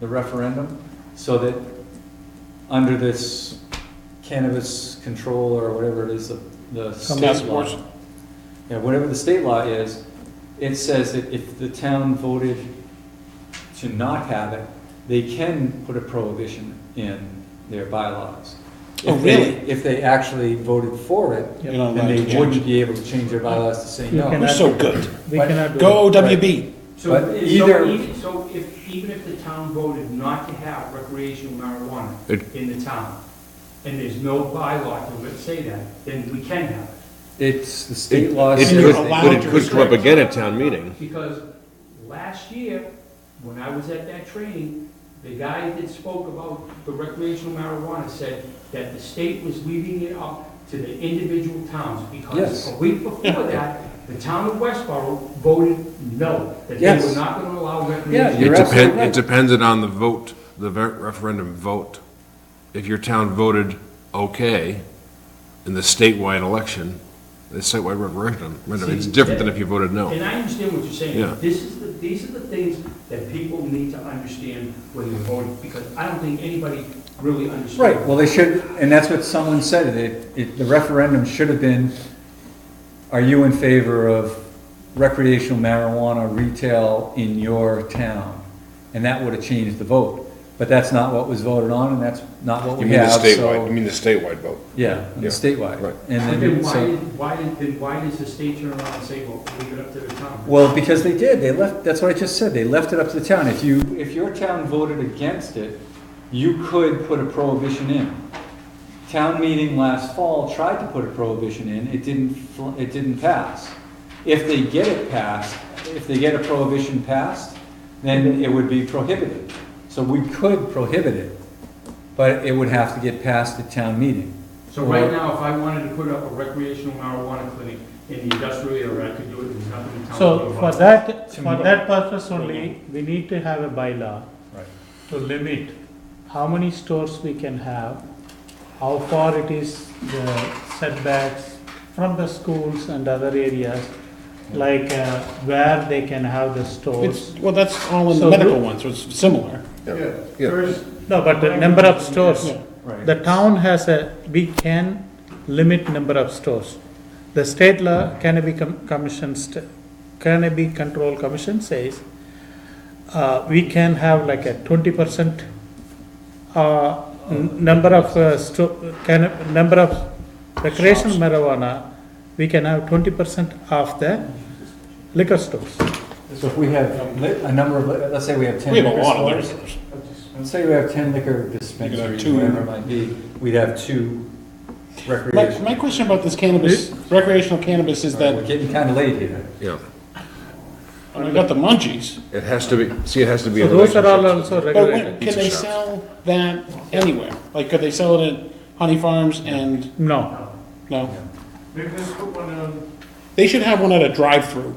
the referendum, so that under this cannabis control or whatever it is, the, the state Council law. Abortion. Yeah, whatever the state law is, it says that if the town voted to not have it, they can put a prohibition in their bylaws. Oh, If they- really? If they actually voted for it, You're Yep. not then allowed to they change. wouldn't be able to change their bylaws to say You no. We're cannot- so good. We But- cannot do Go that. OWB. So, But so either- even, so if, even if the town voted not to have recreational marijuana It- in the town, and there's no bylaw to say that, then we can have it. It's, the state It law it says. you're could, allowed but it to could come up restrict. again at town meeting. Because last year, when I was at that training, the guy that spoke about the recreational marijuana said that the state was leaving it up to the individual towns, because Yes. a week before that, the town of Westboro voted no, that they Yes. were not gonna allow Yeah, recreational. you're It absolutely depends, right. it depends on the vote, the ver- referendum vote. If your town voted okay in the statewide election, the statewide referendum, referendum, it's See, different that- than if you voted no. And I understand what you're Yeah. saying. This is the, these are the things that people need to understand when they're voting, because I don't think anybody really understands. Right, well, they should, and that's what someone said, it, it, the referendum should have been, are you in favor of recreational marijuana retail in your town? And that would have changed the vote, but that's not what was voted on, and that's not what You we mean the have, statewide, you so. mean the statewide vote? Yeah, and Yeah, statewide. right. But And then then, why, so, did- why, did- then why does the state turn around and say, well, leave it up to the town? well, because they did, they left, that's what I just said, they left it up to the town. If you, if your town voted against it, you could put a prohibition in. Town meeting last fall tried to put a prohibition in, it didn't, fl- it didn't pass. If they get it passed, if they get a prohibition passed, then it would be prohibited. So we could prohibit it, but it would have to get passed at town meeting. So right now, if I wanted to put up a recreational marijuana clinic in the industrial area, I could do it, there's nothing the town can do So for about it. that, To for me. that purpose only, we need to have a bylaw Right. to limit how many stores we can have, how far it is the setbacks from the schools and other areas, like uh, where they can have the It's, stores. well, that's all in the So medical do- one, so it's similar. Yeah. First- No, but the number of stores, Right. the town has a, we can limit number of stores. The state law, cannabis Com- commission, st- cannabis control commission says, uh, we can have like a twenty percent, uh, n- number of, uh, sto- can, number of recreational marijuana, we can have twenty percent of the liquor stores. So if we have lit, a number of, li- let's say we have ten. We have a liquor lot of stores. liquor stores. Let's say we have ten liquor dispensaries, two. whatever it might be, we'd have two My, recreational. my question about this cannabis, recreational cannabis is We're that, getting kinda late here. Yeah, I mean, I got the munchies, it has to be, see, it has to be. So a those are all relationship. also but regulated. when- can Pizza they shops. sell that anywhere? Like, could they sell it at Honey Farms and, No, no? Maybe just put one um, They should have one at a drive-through.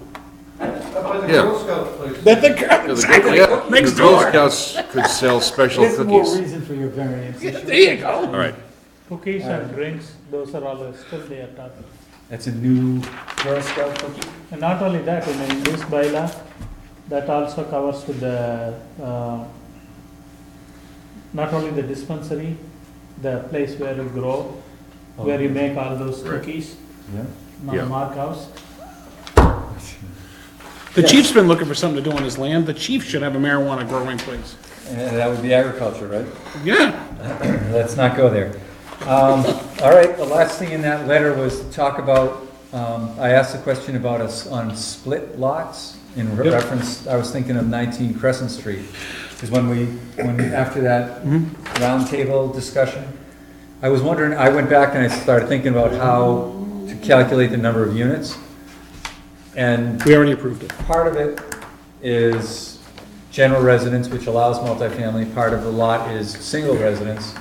up by the Yeah. Girl Scout place. That the, Yeah, the exactly, Girl- yeah, next the Girl door. Scouts could sell special There's more cookies. reason for your variance. There you go. All right, cookies and drinks, those are all still there, top. That's a new Girl Scout cookie. And not only that, you know, in this bylaw, that also covers with the, uh, not only the dispensary, the place where you grow, where you make all those cookies, Yeah. Yeah. not Mark House. The chief's been looking for something to do on his land. The chief should have a marijuana growing place. And that would be agriculture, right? Yeah, Let's not go there. Um, all right, the last thing in that letter was to talk about, um, I asked a question about us on split lots in re- Yep. reference, I was thinking of nineteen Crescent Street. Cause when we, when, after that roundtable discussion, I was wondering, I went back and I started thinking about how to calculate the number of units. And we already approved it. Part of it is general residence, which allows multifamily, part of the lot is single residence.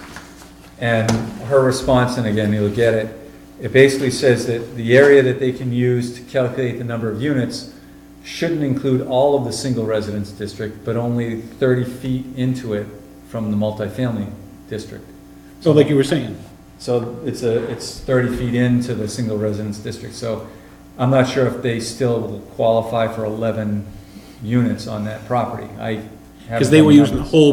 And her response, and again, you'll get it, it basically says that the area that they can use to calculate the number of units shouldn't include all of the single residence district, but only thirty feet into it from the multifamily district. So like you were saying, So it's a, it's thirty feet into the single residence district, so I'm not sure if they still qualify for eleven units on that property, I. because they were using the whole